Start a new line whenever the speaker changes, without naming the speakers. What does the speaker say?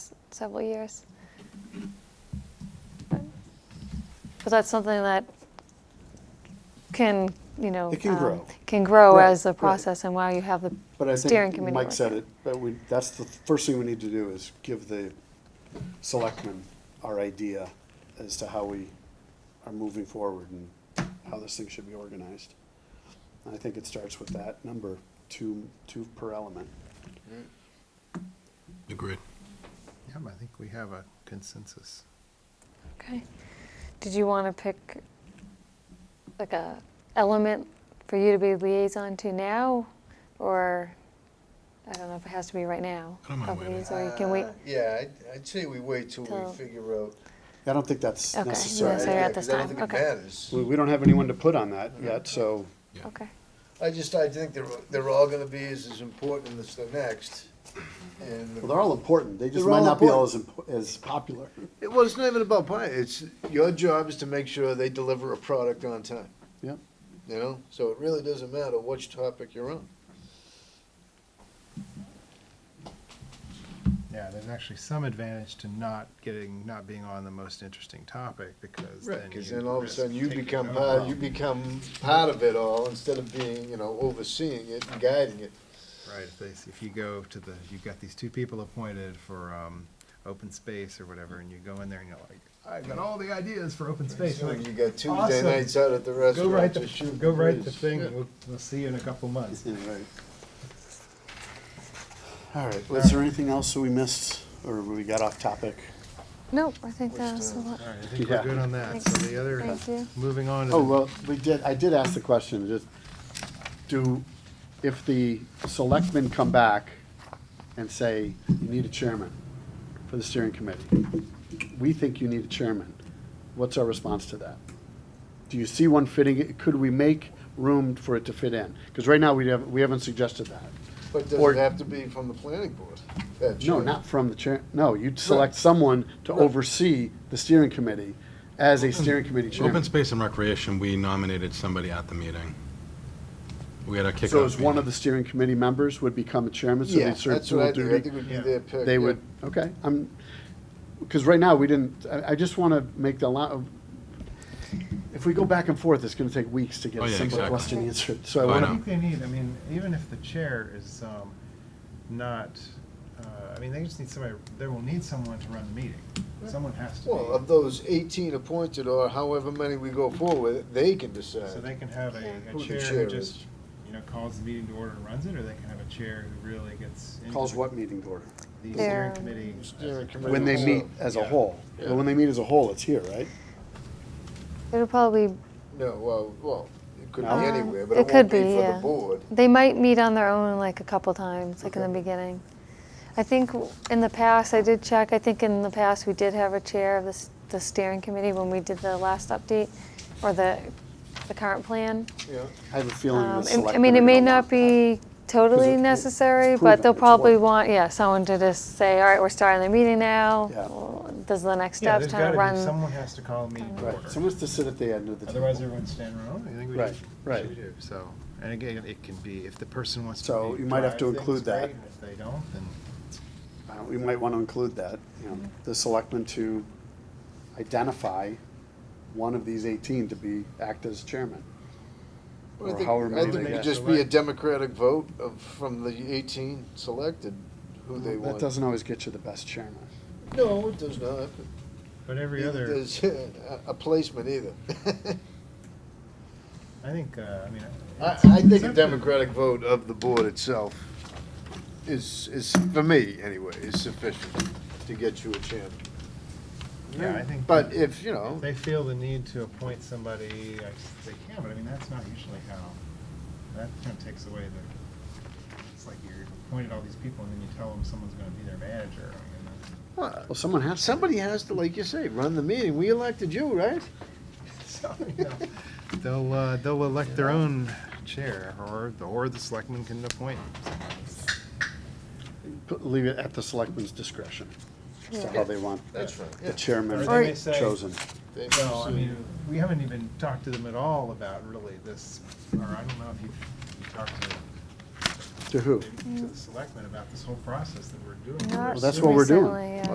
several years. But that's something that can, you know,
It can
um,
grow.
can grow
Right,
as a
right.
process and while you have the
But I
steering
think
committee.
Mike
work.
said it, but we, that's the first thing we need to do is give the selectmen our idea as to how we are moving forward and how this thing should be organized. And I think it starts with that number, two, two per element.
Agreed.
Yeah, but I think we have a consensus.
Okay. Did you want to pick like a element for you to be liaison to now? Or, I don't know if it has to be right now.
I don't mind
of
waiting.
these, Or you can wait.
Uh, Yeah, I'd, I'd say we wait till
Till-
we figure out.
I don't think that's
Okay,
necessary.
yes, I-
Yeah,
at this
'cause I don't
time,
think it
okay.
matters.
We, we don't have anyone to put on that yet, so,
Yeah.
Okay.
I just, I think they're, they're all gonna be as, as important as the next. And
well, they're all important, they just
They're
might
all
not be all as, impo- as popular.
Well, it's not even about pie. It's, your job is to make sure they deliver a product on time,
Yep.
you know? So it really doesn't matter which topic you're on.
Yeah, there's actually some advantage to not getting, not being on the most interesting topic because then
Cause
you
then all of a
risk
sudden you
taking
become
over.
part, you become part of it all instead of being, you know, overseeing it and guiding it.
Right, if they, if you go to the, you've got these two people appointed for, um, open space or whatever, and you go in there and you're like, I've got all the ideas for open space.
So
Like,
You got Tuesday
awesome.
nights out at the
Go write
restaurant.
the,
just shoot
go write the
breeze.
thing,
Yeah.
and we'll, we'll see you in a couple months.
Yeah, right. All right, was there anything else that we missed, or we got off topic?
Nope, I think
Which
that was a
time?
lot.
All right, I think
Yeah.
we're good on that, so the other,
Thank you.
moving on to.
Oh,
the-
well, we did, I did ask the question, just, do, if the selectmen come back and say, you need a chairman for the steering committee, we think you need a chairman, what's our response to that? Do you see one fitting, could we make room for it to fit in? Because right now, we haven't, we haven't suggested that.
But does
Or-
it have to be from the planning board? That
No,
should-
not from the chair, no, you'd select someone to
Right.
oversee the steering committee as a steering committee
Open
chairman.
Space and Recreation, we nominated somebody at the meeting. We had a kickoff.
So as one of the
meeting.
steering committee members would become a chairman, so
Yeah,
they'd serve
that's what I
dual
think. I
duty?
think would be
Yeah.
their pick.
They
yeah.
would, okay, I'm, because right now, we didn't, I, I just want to make the lot, if we go back and forth, it's going to take weeks to get
Oh,
a
yeah,
simple
exactly.
question answered, so I
Oh, I
I
want
know.
to,
think they need, I mean, even if the chair is um, not, uh, I mean, they just need somebody, they will need someone to run the meeting. Someone has to
Well, of
be,
those eighteen appointed or however many we go forward, they can
uh,
so
decide.
they can have a-
Yeah.
a
Who the
chair
chair
who
is.
just, you know, calls the meeting to order and runs it, or they can have a chair who really gets into
calls
the-
what meeting to order?
The
Their-
steering committee.
Steering committee.
When they
So-
meet as a
Yeah.
whole,
Yeah.
when they meet as a whole, it's here, right?
Um,
It'll probably,
No, well, well, it could be
No.
Um,
anywhere, but
it
it
could
won't be
be,
for
yeah.
the board.
they might meet on their own like a couple times, like in the
Okay.
beginning. I think w- in the past, I did check, I think in the past, we did have a chair of the, s- the steering committee when we did the last update or the, the current plan.
Yeah,
I have a feeling
Um,
the
it- I
selectmen
mean,
are
it may
gonna
not
want that.
be
it-
totally
it's
necessary,
proven,
but they'll
it's
probably
worked.
want, yeah, someone to just say, all right, we're starting the meeting now.
Yeah.
Well, Does the next
Yeah,
steps
there's
kind
gotta
of
be,
run?
someone has to call a meeting to
Right,
order.
someone has to sit at the end of the table.
Otherwise, everyone's standing around, I think we
Right,
should,
right.
should we do, so. And again, it can be, if the person wants to.
So
be-
you might have to
drive things,
include that.
great, and If they don't, then.
Uh, We might want to include that, you know, the selectmen to identify one of these 18 to be, act as chairman.
Well, I
Or
think,
however many
I
they
think it
get.
would just be a
Select.
democratic vote of, from the eighteen selected, who they
That
want.
doesn't always get you the best chairman.
No, it does not.
But every
Neither
other.
does a a placement either.
I think, uh, I mean.
I,
it's-
I think
it's
a
up to-
democratic vote of the board itself is, is, for me anyway, is sufficient to get you a champ.
Yeah, I think.
But
that
if, you know,
They feel the need to appoint somebody, I s- they can, but I mean, that's not usually how, that kind of takes away the, it's like you're appointed all these people and then you tell them someone's gonna be their manager. I mean, that's-
well,
Uh, Well, someone has to.
uh, somebody has to, like you say, run the meeting. We elected you, right?
So, you know, They'll, uh, they'll elect their own chair or, the or the selectman can appoint.
Put- Leave it at the selectmen's discretion, as to how they want
That's right.
the chairman
Or they may say-
chosen.
Well, I mean, we haven't even talked to them at all about really this, or I don't know if you've you've talked to
To who?
to the selectmen about this whole process that we're doing.
Not
Well, that's what we're doing.
recently, yeah.